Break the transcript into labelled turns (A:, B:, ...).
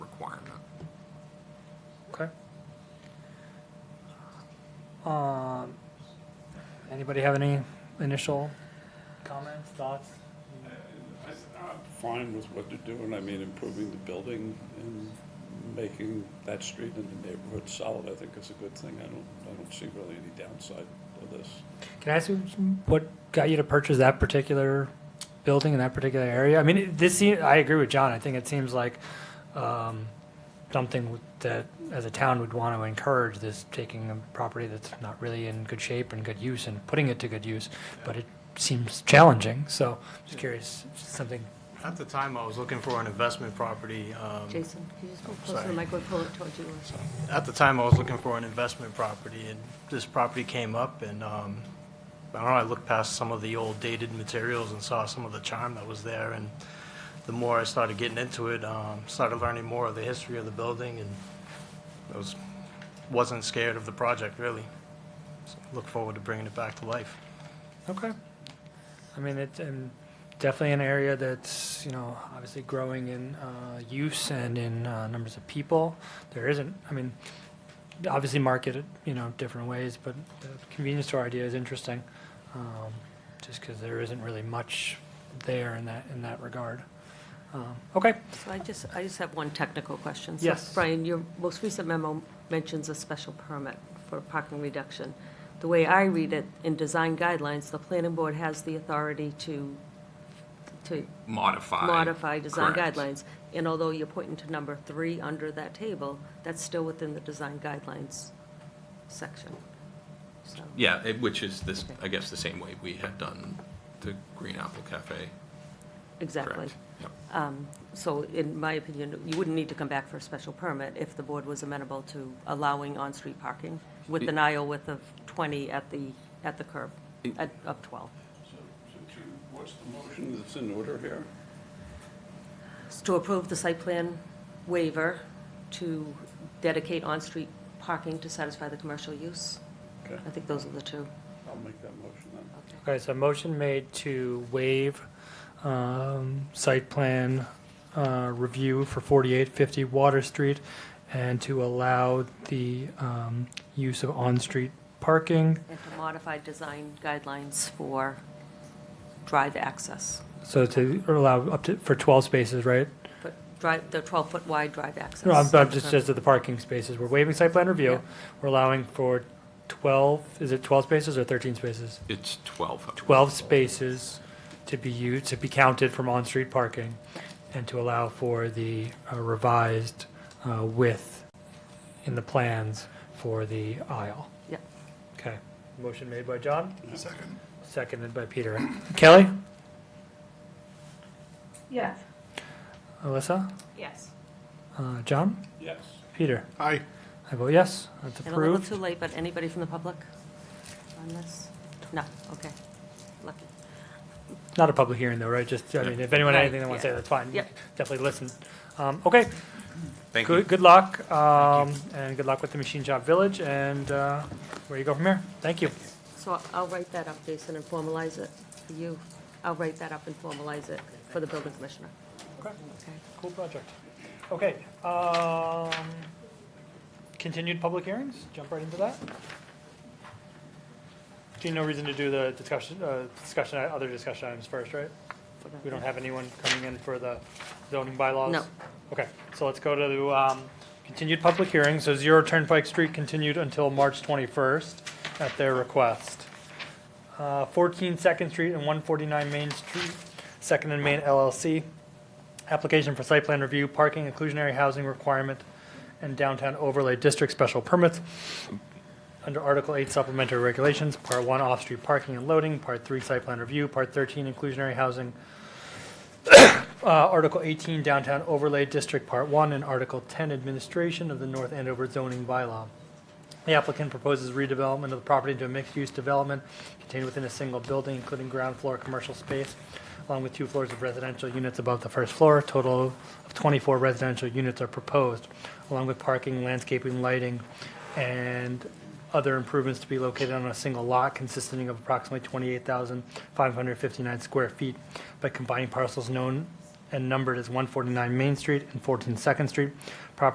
A: Amendment.
B: Okay. Um, anybody have any initial comments, thoughts?
C: I'm fine with what they're doing, I mean, improving the building and making that street and the neighborhood solid, I think is a good thing. I don't, I don't see really any downside to this.
B: Can I ask you what got you to purchase that particular building in that particular area? I mean, it- this, se- I agree with John. I think it seems like, um, something w- that as a town would want to encourage this, taking a property that's not really in good shape and good use and putting it to good use, but it seems challenging. So just curious, something
A: At the time, I was looking for an investment property. um,
D: Jason, can you just go closer to the
A: Sorry.
D: mic or pull it towards you?
A: At the time, I was looking for an investment property, and this property came up, and um, I don't know, I looked past some of the old dated materials and saw some of the charm that was there, and the more I started getting into it, um, started learning more of the history of the building, and I was, wasn't scared of the project, really. So, Look forward to bringing it back to life.
B: Okay. I mean, it's um, definitely an area that's, you know, obviously growing in uh, use and in uh, numbers of people. There isn't, I mean, obviously marketed, you know, different ways, but the convenience store idea is interesting, um, just because there isn't really much there in that, in that regard. Um, Okay,
D: So I just, I just have one technical question. So,
B: Yes.
D: Brian, your most recent memo mentions a special permit for parking reduction. The way I read it, in design guidelines, the planning board has the authority to, to
E: modify.
D: modify design
E: Correct.
D: guidelines. And although you're pointing to number three under that table, that's still within the design guidelines section. So,
E: Yeah, it- which is this,
D: Okay.
E: I guess, the same way we had done the Green Apple Cafe,
D: exactly.
E: correct? Yep.
D: So in my opinion, you wouldn't need to come back for a special permit if the board was amenable to allowing on-street parking with an aisle width of 20 at the, at the curb, at- of 12.
C: So, so Chief, what's the motion that's in order here?
D: It's To approve the site plan waiver to dedicate on-street parking to satisfy the commercial use.
C: Okay,
D: I think those are the two.
C: I'll make that motion then.
B: okay, so motion made to waive um, site plan uh, review for 4850 Water Street and to allow the um, use of on-street parking
D: And to modify design guidelines for drive access,
B: So to allow up to, for 12 spaces, right?
D: but drive, the 12-foot wide drive access.
B: No, I'm, I'm just, just at the parking spaces. We're waiving site plan
D: Yeah.
B: review. We're allowing for 12, is it 12 spaces or 13 spaces?
E: It's 12. of them.
B: 12 spaces to be used, to be counted from on-street parking and to allow for the uh, revised uh, width in the plans for the aisle.
D: Yeah.
B: Okay. Motion made by John,
A: Second.
B: seconded by Peter. Kelly?
D: Yes.
B: Alyssa?
D: Yes.
B: Uh, John?
C: Yes.
B: Peter?
A: Aye.
B: I vote yes. That's
D: And a little
B: approved.
D: too late, but anybody from the public on this? No, okay, lucky.
B: Not a public hearing though, right? Just, I mean, if anyone had
D: Right,
B: anything they want to say,
D: yeah.
B: that's fine.
D: Yep.
B: Definitely listen. Um, okay,
E: Thank you.
B: good, good luck, um, and good luck with the Machine Shop Village and, uh, where you go from here. Thank you.
D: So I'll- I'll write that up, Jason, and formalize it for you. I'll write that up and formalize it for the building commissioner. Okay.
B: Cool project. Okay, um, continued public hearings, jump right into that. Do you no reason to do the discussion, uh, discussion, other discussion items first, right?
D: for the-
B: We don't have anyone coming in for the zoning bylaws?
D: No.
B: Okay, so let's go to the um, continued public hearing. So Zero Turnpike Street continued until March 21st at their request. Uh, 14 Second Street and 149 Main Street, Second and Main LLC. Application for site plan review, parking, inclusionary housing requirement, and downtown overlay district special permits under Article 8 supplementary regulations, Part 1 off-street parking and loading, Part 3 site plan review, Part 13 inclusionary housing, uh, Article 18 downtown overlay district, Part 1, and Article 10 administration of the North Andover zoning bylaw. The applicant proposes redevelopment of the property into a mixed-use development contained within a single building, including ground floor commercial space, along with two floors of residential units above the first floor. A Total of 24 residential units are proposed, along with parking, landscaping, lighting, and other improvements to be located on a single lot consisting of approximately 28,559 square feet by combining parcels known and numbered as 149 Main Street and 14 Second Street. Property